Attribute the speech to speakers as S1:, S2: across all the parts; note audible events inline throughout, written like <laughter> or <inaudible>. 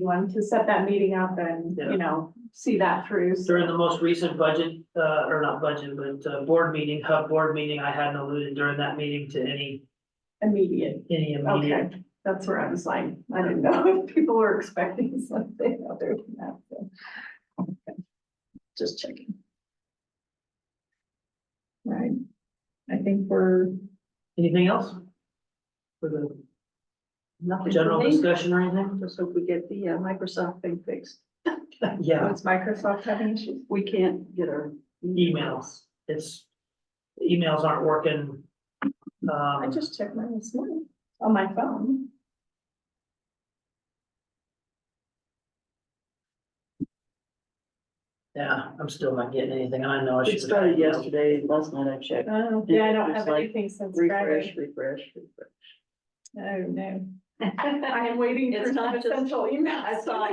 S1: one to set that meeting up and,
S2: Yeah.
S1: you know, see that through. so-
S2: During the most recent budget, uh, or not budget, but, uh, board meeting, hub board meeting, I hadn't alluded during that meeting to any,
S1: Immediate,
S2: any immediate.
S1: okay, that's where I was like, I didn't know <laughs> if people were expecting <laughs> something other than that, so. Okay. Just checking. Right, I think we're.
S2: Anything else? For the
S3: Nothing
S2: general
S3: for me.
S2: discussion or
S3: <laughs>
S2: anything?
S3: Just hope we get the uh, Microsoft thing fixed.
S2: Yeah,
S1: What's Microsoft having issues?
S3: We can't get our
S2: emails. It's, the emails aren't working.
S1: I
S2: Um,
S1: just checked mine this morning on my phone.
S2: yeah, I'm still not getting anything. and I know I should.
S3: It started yesterday, last night I checked.
S1: Oh, yeah, I don't
S3: It's
S1: have
S3: like
S1: anything since Friday.
S3: Refresh, refresh, refresh.
S1: Oh,
S3: <laughs>
S1: no. I am waiting for
S3: It's
S1: some
S3: not just-
S1: essential emails.
S3: I saw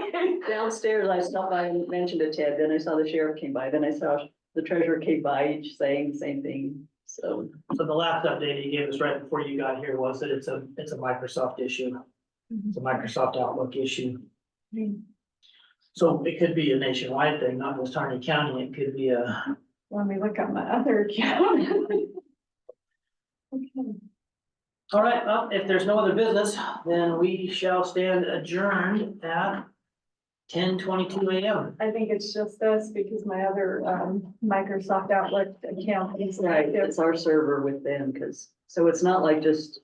S3: Downstairs, I stopped by and mentioned it to Ted, then I saw the sheriff came by, then I saw the treasurer came by, each saying the same thing, so.
S2: So the last update you gave us right before you got here was that it's a, it's a Microsoft issue. It's a Microsoft Outlook issue.
S1: <laughs>
S2: So it could be a nationwide thing, not just Harney County. It could be a,
S1: Let me look at my other account. <laughs> Okay.
S2: all right, well, if there's no other business, then we shall stand adjourned at ten twenty-two AM.
S1: I think it's just this because my other um Microsoft Outlook account is
S3: Right,
S1: active.
S3: it's our server with them, because, so it's not like just